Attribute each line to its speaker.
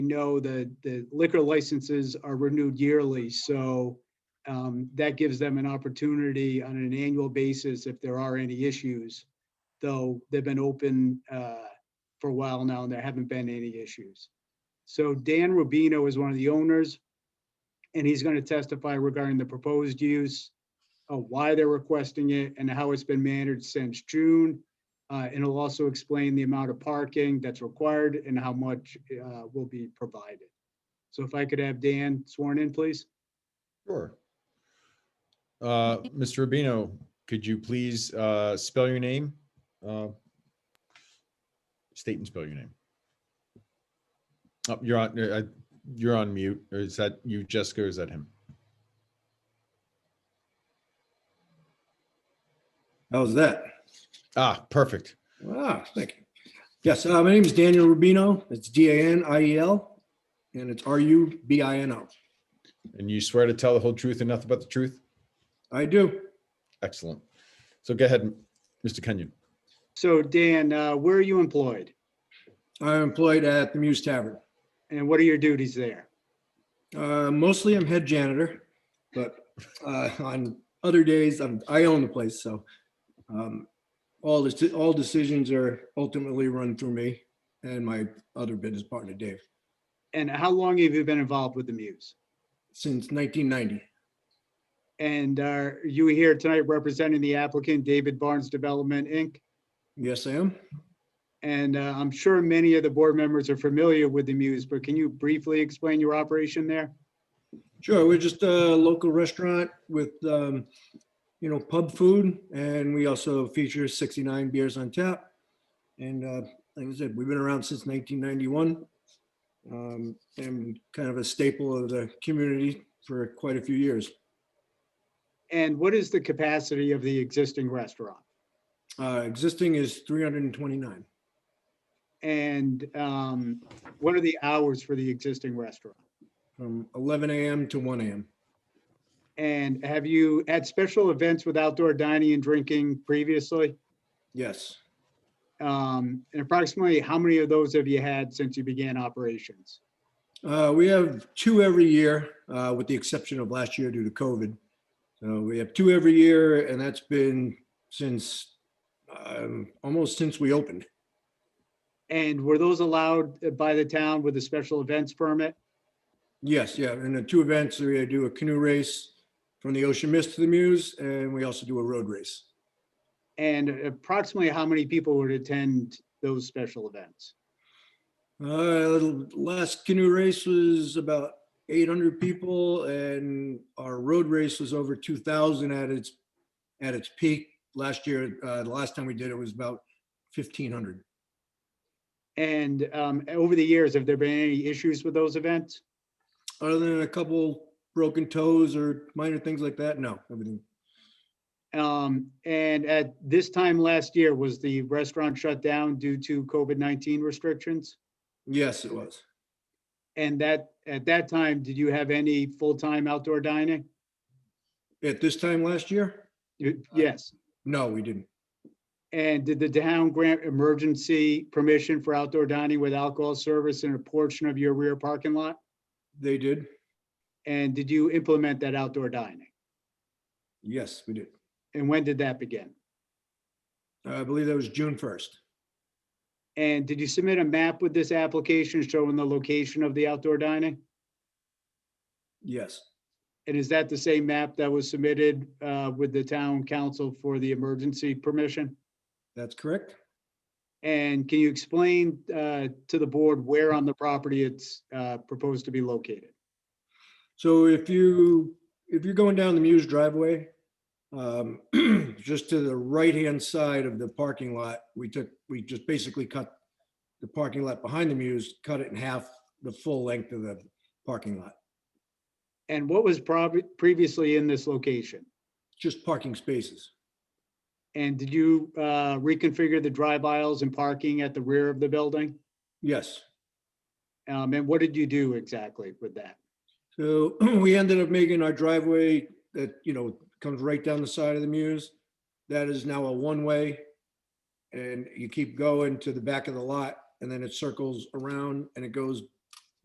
Speaker 1: know that the liquor licenses are renewed yearly, so um, that gives them an opportunity on an annual basis if there are any issues. Though they've been open uh, for a while now and there haven't been any issues. So Dan Rubino is one of the owners, and he's going to testify regarding the proposed use, uh, why they're requesting it, and how it's been managed since June. Uh, And it'll also explain the amount of parking that's required and how much uh, will be provided. So if I could have Dan sworn in, please?
Speaker 2: Sure. Uh, Mr. Rubino, could you please uh, spell your name? Uh, State and spell your name. Oh, You're on, uh, you're on mute. Or Is that you, Jessica? or Is that him?
Speaker 3: How's that?
Speaker 2: Ah, perfect.
Speaker 3: Ah, thank you. Yes, uh, my name is Daniel Rubino. It's D-A-N-I-E-L, E and it's R-U-B-I-N-O.
Speaker 2: And you swear to tell the whole truth and nothing but the truth?
Speaker 3: I do.
Speaker 2: Excellent. So go ahead, Mr. Kenyon.
Speaker 1: So Dan, uh, where are you employed
Speaker 3: I'm employed at the Muse Tavern.
Speaker 1: and what are your duties there?
Speaker 3: Uh, mostly I'm head janitor, but uh, on other days, I'm, I own the place, so um, all this, all decisions are ultimately run through me and my other business partner, Dave,
Speaker 1: And how long have you been involved with the Muse?
Speaker 3: since 1990.
Speaker 1: And uh, are you here tonight representing the applicant, David Barnes Development, Inc.?
Speaker 3: Yes, I am.
Speaker 1: And uh, I'm sure many of the board members are familiar with the Muse, but can you briefly explain your operation there?
Speaker 3: Sure, we're just a local restaurant with, um, you know, pub food, and we also feature 69 beers on tap. And uh, like I said, we've been around since 1991. um, And kind of a staple of the community for quite a few years.
Speaker 1: And what is the capacity of the existing restaurant?
Speaker 3: Uh, Existing is 329.
Speaker 1: And um, what are the hours for the existing restaurant?
Speaker 3: From 11 AM to 1 AM.
Speaker 1: And have you had special events with outdoor dining and drinking previously?
Speaker 3: Yes,
Speaker 1: Um, And approximately, how many of those have you had since you began operations?
Speaker 3: Uh, we have two every year, uh, with the exception of last year due to COVID. So we have two every year, and that's been since um, almost since we opened.
Speaker 1: And were those allowed uh, by the town with a special events permit?
Speaker 3: Yes, yeah, and the two events we do a canoe race from the Ocean Mist to the Muse, and we also do a road race.
Speaker 1: And approximately, how many people would attend those special events?
Speaker 3: Uh, last canoe race was about 800 people, and our road race was over 2,000 at its at its peak last year. Uh, the last time we did it was about 1,500.
Speaker 1: And um, over the years, have there been any issues with those events?
Speaker 3: other than a couple broken toes or minor things like that, no, everything.
Speaker 1: Um, and at this time last year, was the restaurant shut down due to COVID-19 restrictions?
Speaker 3: Yes, it was.
Speaker 1: And that, at that time, did you have any full-time outdoor dining?
Speaker 3: At this time last year?
Speaker 1: You- Yes.
Speaker 3: No, we didn't.
Speaker 1: And did the town grant emergency permission for outdoor dining with alcohol service in a portion of your rear parking lot?
Speaker 3: They did?
Speaker 1: And did you implement that outdoor dining?
Speaker 3: Yes, we did.
Speaker 1: And when did that begin?
Speaker 3: I believe that was June first.
Speaker 1: And did you submit a map with this application showing the location of the outdoor dining?
Speaker 3: Yes,
Speaker 1: And is that the same map that was submitted uh, with the town council for the emergency permission?
Speaker 3: that's correct.
Speaker 1: And can you explain uh, to the board where on the property it's uh, proposed to be located?
Speaker 3: So if you, if you're going down the Muse driveway, um, just to the right-hand side of the parking lot, we took, we just basically cut the parking lot behind the Muse, cut it in half, the full length of the parking lot,
Speaker 1: And what was prob- previously in this location?
Speaker 3: just parking spaces.
Speaker 1: And did you uh, reconfigure the drive aisles and parking at the rear of the building?
Speaker 3: Yes.
Speaker 1: Um, And what did you do exactly with that?
Speaker 3: So we ended up making our driveway that, you know, comes right down the side of the Muse. That is now a one-way. And you keep going to the back of the lot and then it circles around and it goes